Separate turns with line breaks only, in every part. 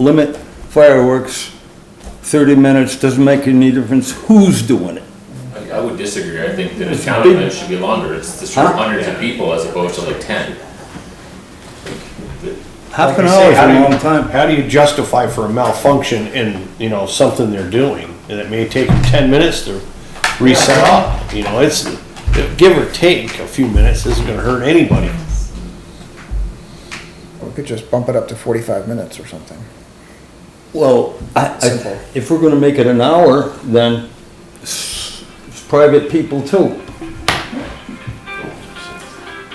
limit fireworks, 30 minutes, doesn't make any difference who's doing it.
I I would disagree, I think that a town event should be longer, it's the
Huh?
hundreds of people as opposed to like ten.
Half
Like
an
I say,
hour is
how do
a
you-
long time.
How do you justify for a malfunction in, you know, something they're doing? And it may take them ten minutes to reset up, you know, it's, give or take a few minutes isn't gonna hurt anybody.
We could just bump it up to 45 minutes or something.
Well, I,
Simple.
I, if we're gonna make it an hour, then s- it's private people too.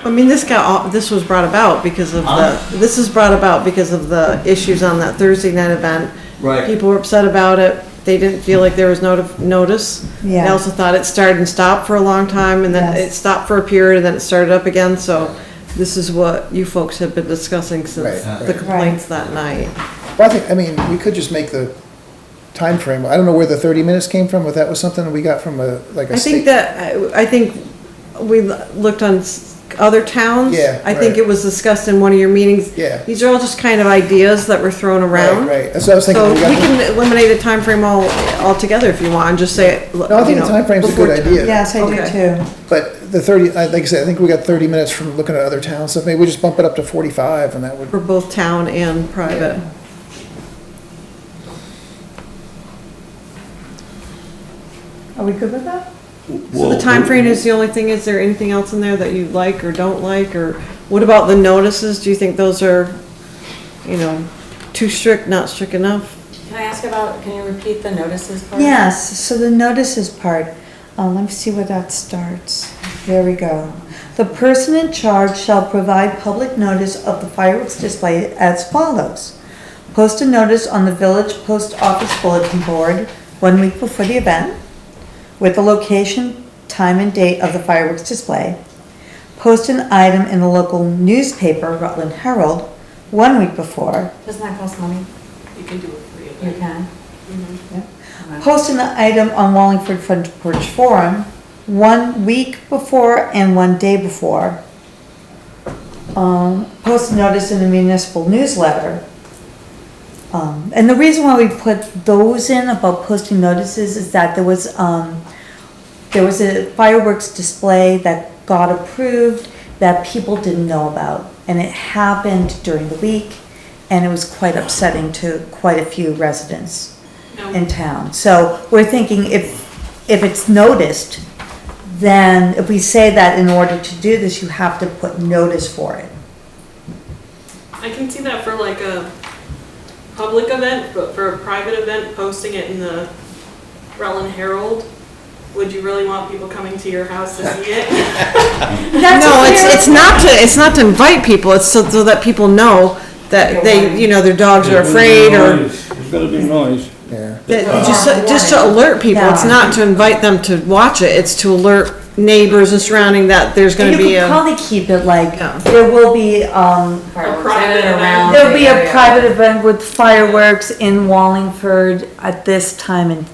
I mean, this got, all- this was brought about because of
Huh?
the, this is brought about because of the issues on that Thursday night event.
Right.
People were upset about it, they didn't feel like there was notif- notice. They
Yeah.
also thought it started and stopped for a long time, and then it
Yes.
stopped for a period, and then it started up again, so this is what you folks have been discussing since
Right.
the complaints that night.
Well, I think, I mean, we could just make the time frame. I don't know where the 30 minutes came from, but that was something we got from a, like a
I think
state.
that, I I think we l- looked on s- other towns.
Yeah,
I think
right.
it was discussed in one of your meetings.
Yeah.
These are all just kind of ideas that were thrown around.
Right, right. That's what I was thinking.
So
We
we
got the-
can eliminate a time frame all, altogether if you want, and just say. it,
No, I think
you
the
know,
timeframe's a good
before-
idea.
Yes, I do
Okay.
too.
But the 30, I- like I said, I think we got 30 minutes from looking at other towns, so maybe we just bump it up to 45 and that would,
For both town and private.
Are we good with that?
So the time frame is the only thing, is there anything else in there that you like or don't like, or what about the notices? Do you think those are, you know, too strict, not strict enough?
Can I ask about, can you repeat the notices part?
Yes, so the notices part, uh, let me see where that starts. There we go. The person in charge shall provide public notice of the fireworks display as follows. Post a notice on the village post office bulletin board one week before the event with the location, time and date of the fireworks display. Post an item in the local newspaper, Rutland Herald, one week before
Doesn't that cost money?
You can do it for you.
You can.
Posting the item on Wallingford Front Porch Forum one week before and one day before. Um, post notice in the municipal newsletter. Um, and the reason why we put those in about posting notices is that there was, um, there was a fireworks display that got approved that people didn't know about. And it happened during the week and it was quite upsetting to quite a few residents in town. So we're thinking if, if it's noticed, then if we say that in order to do this, you have to put notice for it.
I can see that for like a public event, but for a private event, posting it in the Rutland Herald, would you really want people coming to your house to see it?
No, it's, it's not to, it's not to invite people, it's so, so that people know that they, you know, their dogs are afraid or,
There's gotta be noise.
yeah.
that, just, so- just to alert people, it's not to invite them to watch it, it's to alert neighbors and surrounding that there's gonna
You
be
could
a.
probably keep it like,
Yeah.
there will be, um,
Fireworks
private
in and
event.
around
there'll be
the
a
area.
private event with fireworks in Wallingford at this time and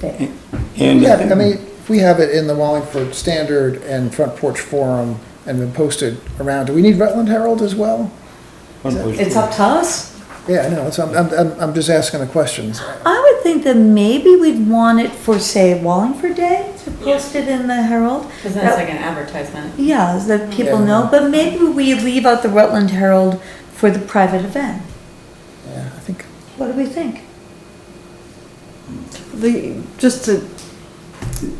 day.
And
Yeah, I mean, if we have it in the Wallingford Standard and Front Porch Forum and been posted around. Do we need Rutland Herald as well?
It's up to us?
Yeah, I know, that's- I'm, I'm- I'm, I'm just asking the questions.
I would think that maybe we'd want it for, say, Wallingford Day, to post it in the Herald.
Because that's like an advertisement.
Yeah, so that people
Yeah.
know, but maybe we leave out the Rutland Herald for the private event.
Yeah, I think,
What do we think?
The, just to,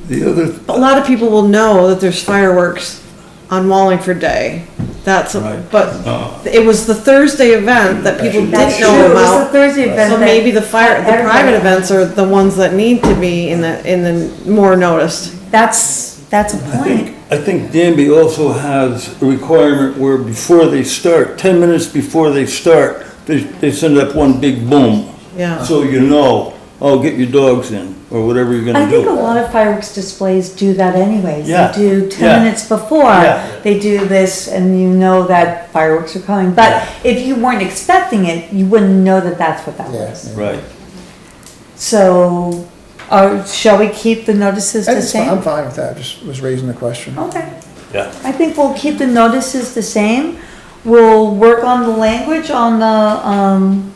The other,
a lot of people will know that there's fireworks on Wallingford Day. That's, a-
Right.
but it was the Thursday event that people
Uh-huh. That's
didn't
true,
know
it was the
about.
Thursday event.
So
that-
maybe the fire, the private
Everybody-
events are the ones that need to be in the, in the more noticed.
That's, that's a point.
I think Danby also has a requirement where before they start, ten minutes before they start, they, they send up one big boom.
Yeah.
So you know, oh, get your dogs in, or whatever you're
I
gonna
think a
do.
lot of fireworks displays do that anyways.
Yeah,
They do
yeah.
ten minutes before,
Yeah.
they do this and you know that fireworks are coming. But if you weren't expecting it, you wouldn't know that that's what that
yeah.
was.
Right.
So, uh, shall we keep the notices the
That's fine. I'm
same? Oh,
fine with that, just was raising the question.
Okay.
Yeah.
I think we'll keep the notices the same. We'll work on the language on the, um,